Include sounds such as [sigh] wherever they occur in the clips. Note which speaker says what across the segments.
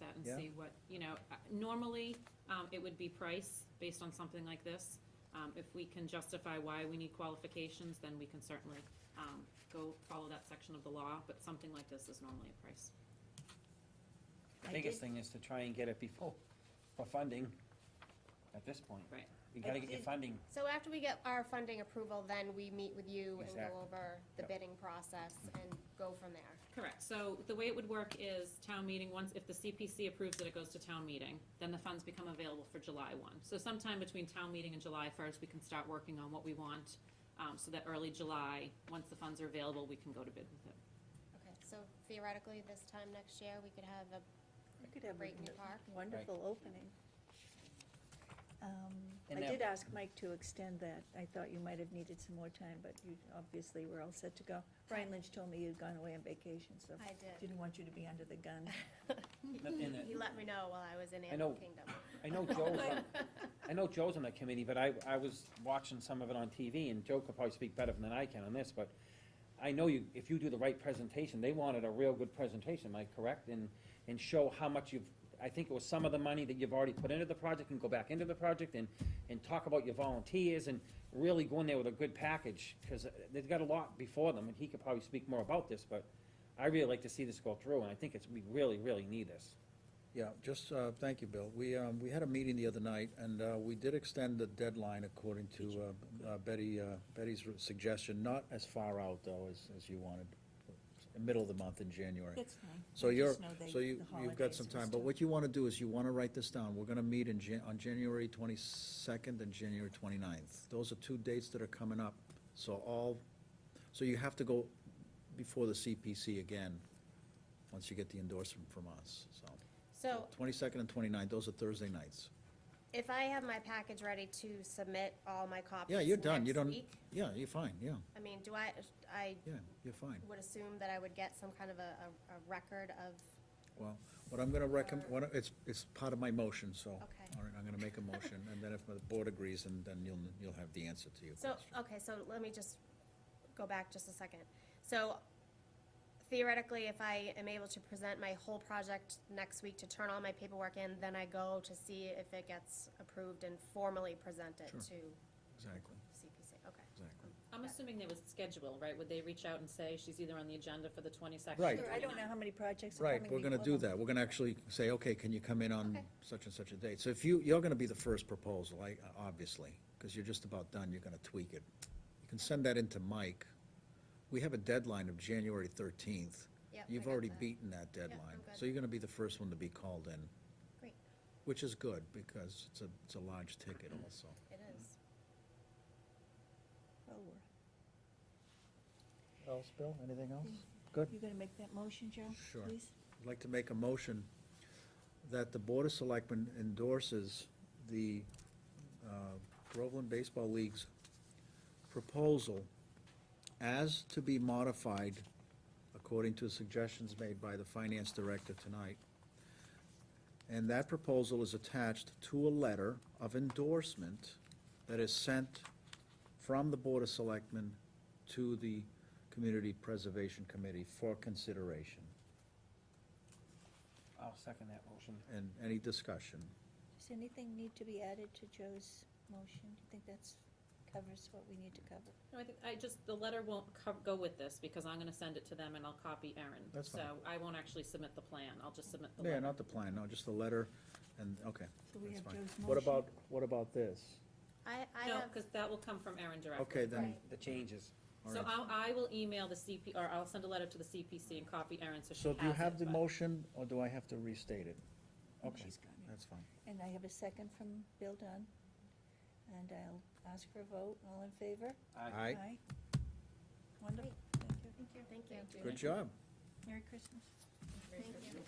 Speaker 1: and
Speaker 2: Yeah.
Speaker 1: see what, you know, uh, normally, um, it would be price based on something like this. Um, if we can justify why we need qualifications, then we can certainly, um, go follow that section of the law, but something like this is normally a price.
Speaker 3: I
Speaker 2: The biggest
Speaker 3: did-
Speaker 2: thing is to try and get it before, for funding at this point.
Speaker 1: Right.
Speaker 2: You gotta get your
Speaker 3: did-
Speaker 2: funding.
Speaker 3: So after we get our funding approval, then we meet with you and
Speaker 2: Exactly.
Speaker 3: go over the
Speaker 2: Yep.
Speaker 3: bidding process and go from there.
Speaker 1: Correct, so the way it would work is town meeting, once, if the CPC approves it, it goes to town meeting, then the funds become available for July one. So sometime between town meeting and July first, we can start working on what we want, um, so that early July, once the funds are available, we can go to bid with it.
Speaker 3: Okay, so theoretically, this time next year, we could have a
Speaker 4: I could have
Speaker 3: great new
Speaker 4: a
Speaker 3: park.
Speaker 4: wonderful opening. Um,
Speaker 2: And
Speaker 4: I
Speaker 2: that-
Speaker 4: did ask Mike to extend that. I thought you might have needed some more time, but you obviously were all set to go. Brian Lynch told me you'd gone away on vacation, so
Speaker 3: I did.
Speaker 4: didn't want you to be under the gun.
Speaker 2: Not in it.
Speaker 3: He let me know while I was in
Speaker 2: I know.
Speaker 3: Animal Kingdom.
Speaker 2: I know Joe's, on- I know Joe's on that committee, but I, I was watching some of it on TV, and Joe could probably speak better than I can on this, but I know you, if you do the right presentation, they wanted a real good presentation, am I correct? And, and show how much you've, I think it was some of the money that you've already put into the project and go back into the project and, and talk about your volunteers and really go in there with a good package, because they've got a lot before them, and he could probably speak more about this, but I really like to see this go through, and I think it's, we really, really need this.
Speaker 5: Yeah, just, uh, thank you, Bill. We, um, we had a meeting the other night, and uh, we did extend the deadline according to uh, uh, Betty, uh, Betty's suggestion, not as far out, though, as, as you wanted, uh, middle of the month in January.
Speaker 4: That's fine.
Speaker 5: So
Speaker 4: I
Speaker 5: you're,
Speaker 4: just know they-
Speaker 5: so you,
Speaker 4: the
Speaker 5: you've got
Speaker 4: holidays
Speaker 5: some
Speaker 4: and
Speaker 5: time, but
Speaker 4: stuff.
Speaker 5: what you wanna do is you wanna write this down. We're gonna meet in Jan, on January twenty-second and January 29th. Those are two dates that are coming up, so all, so you have to go before the CPC again, once you get the endorsement from us, so.
Speaker 3: So
Speaker 5: Twenty-second and 29th. those are Thursday nights.
Speaker 3: if I have my package ready to submit all my copies
Speaker 5: Yeah, you're done, you
Speaker 3: next
Speaker 5: don't,
Speaker 3: week,
Speaker 5: yeah, you're fine, yeah,
Speaker 3: I mean, do I, I
Speaker 5: yeah, you're fine.
Speaker 3: would assume that I would get some kind of a, a, a record of,
Speaker 5: Well, what I'm gonna recommend, what, I- it's, it's part of my motion, so.
Speaker 3: Okay.
Speaker 5: All right, I'm gonna make a motion, and then if the board agrees, then, then you'll, you'll have the answer to your
Speaker 3: so,
Speaker 5: question.
Speaker 3: okay, so let me just go back just a second. So theoretically, if I am able to present my whole project next week to turn all my paperwork in, then I go to see if it gets approved and formally present it
Speaker 5: Sure.
Speaker 3: to
Speaker 5: Exactly,
Speaker 3: CPC, okay.
Speaker 5: exactly.
Speaker 1: I'm assuming there was a schedule, right? Would they reach out and say she's either on the agenda for the twenty-second?
Speaker 5: Right.
Speaker 4: Sure, I don't know how many projects are
Speaker 5: Right,
Speaker 4: coming
Speaker 5: we're gonna
Speaker 4: before
Speaker 5: do
Speaker 4: them.
Speaker 5: that, we're gonna actually say, okay, can you come in on
Speaker 3: Okay.
Speaker 5: such and such a date? So if you, you're gonna be the first proposal, I, obviously, because you're just about done, you're gonna tweak it. You can send that in to Mike. We have a deadline of January thirteenth.
Speaker 3: Yep, I
Speaker 5: You've
Speaker 3: got
Speaker 5: already
Speaker 3: that.
Speaker 5: beaten that deadline,
Speaker 3: good.
Speaker 5: so you're gonna be the first one to be called in.
Speaker 3: Great.
Speaker 5: Which is good, because it's a, it's a large ticket also.
Speaker 3: It is.
Speaker 4: Oh, we're-
Speaker 5: Else, Bill, anything else? Good.
Speaker 4: You gonna make that motion, Joe,
Speaker 5: Sure.
Speaker 4: please?
Speaker 5: I'd like to make a motion that the Board of Selectmen endorses the uh, Groveland Baseball League's proposal as to be modified according to suggestions made by the Finance Director tonight. And that proposal is attached to a letter of endorsement that is sent from the Board of Selectmen to the Community Preservation Committee for consideration.
Speaker 2: I'll second that motion.
Speaker 5: And any discussion?
Speaker 4: Does anything need to be added to Joe's motion? Do you think that's, covers what we need to cover?
Speaker 1: No, I think, I just, the letter won't co- go with this because I'm gonna send it to them and I'll copy Erin.
Speaker 5: That's fine.
Speaker 1: So I won't actually submit the plan. I'll just submit the
Speaker 5: Yeah,
Speaker 1: letter.
Speaker 5: not the plan, no, just the letter, and, okay,
Speaker 4: So we
Speaker 5: that's
Speaker 4: have
Speaker 5: fine.
Speaker 4: Joe's
Speaker 5: What
Speaker 4: motion.
Speaker 5: about, what about this?
Speaker 3: I, I
Speaker 1: No,
Speaker 3: have,
Speaker 1: because that will come from Erin directly.
Speaker 5: Okay, then,
Speaker 3: Right.
Speaker 2: The changes.
Speaker 5: all
Speaker 1: So
Speaker 5: right.
Speaker 1: I'll, I will email the CP, or I'll send a letter to the CPC and copy Erin so she
Speaker 5: So
Speaker 1: has it.
Speaker 5: do you have the
Speaker 1: but-
Speaker 5: motion, or do I have to restate it?
Speaker 4: Oh,
Speaker 5: Okay,
Speaker 4: she's got it.
Speaker 5: that's fine.
Speaker 4: And I have a second from Bill Dunn. And I'll ask for a vote. All in favor?
Speaker 5: Aye,
Speaker 4: Wonderful. Thank you. Thank you.
Speaker 3: thank you.
Speaker 5: good job.
Speaker 4: Merry Christmas.
Speaker 3: Thank you.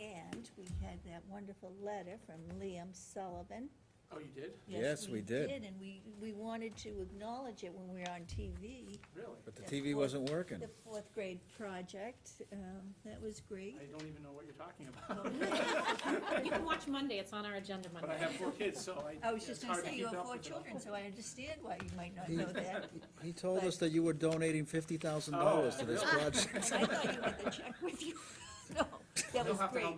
Speaker 4: And we had that wonderful letter from Liam Sullivan.
Speaker 6: Oh, you did?
Speaker 5: Yes, we did.
Speaker 4: And we, we wanted to acknowledge it when we were on TV.
Speaker 6: Really?
Speaker 5: But the
Speaker 4: The
Speaker 5: TV
Speaker 4: fourth-
Speaker 5: wasn't working.
Speaker 4: The fourth grade project, um, that was great.
Speaker 6: I don't even know what you're talking about.
Speaker 1: You can watch Monday, it's on our agenda Monday.
Speaker 6: But I have four kids, so I.
Speaker 4: I was just
Speaker 6: it's
Speaker 4: gonna
Speaker 6: hard to
Speaker 4: say, you
Speaker 6: keep
Speaker 4: have
Speaker 6: up
Speaker 4: four
Speaker 6: with it all.
Speaker 4: children, so I understand why you might
Speaker 6: [laughs]
Speaker 4: not
Speaker 5: He-
Speaker 4: know that.
Speaker 5: He told us that you were donating fifty thousand
Speaker 6: Oh,
Speaker 5: dollars to this
Speaker 6: really?
Speaker 5: project.
Speaker 4: And I thought you [laughs] had the check with you. No, that
Speaker 6: They'll
Speaker 4: was
Speaker 6: have to
Speaker 4: great.
Speaker 6: help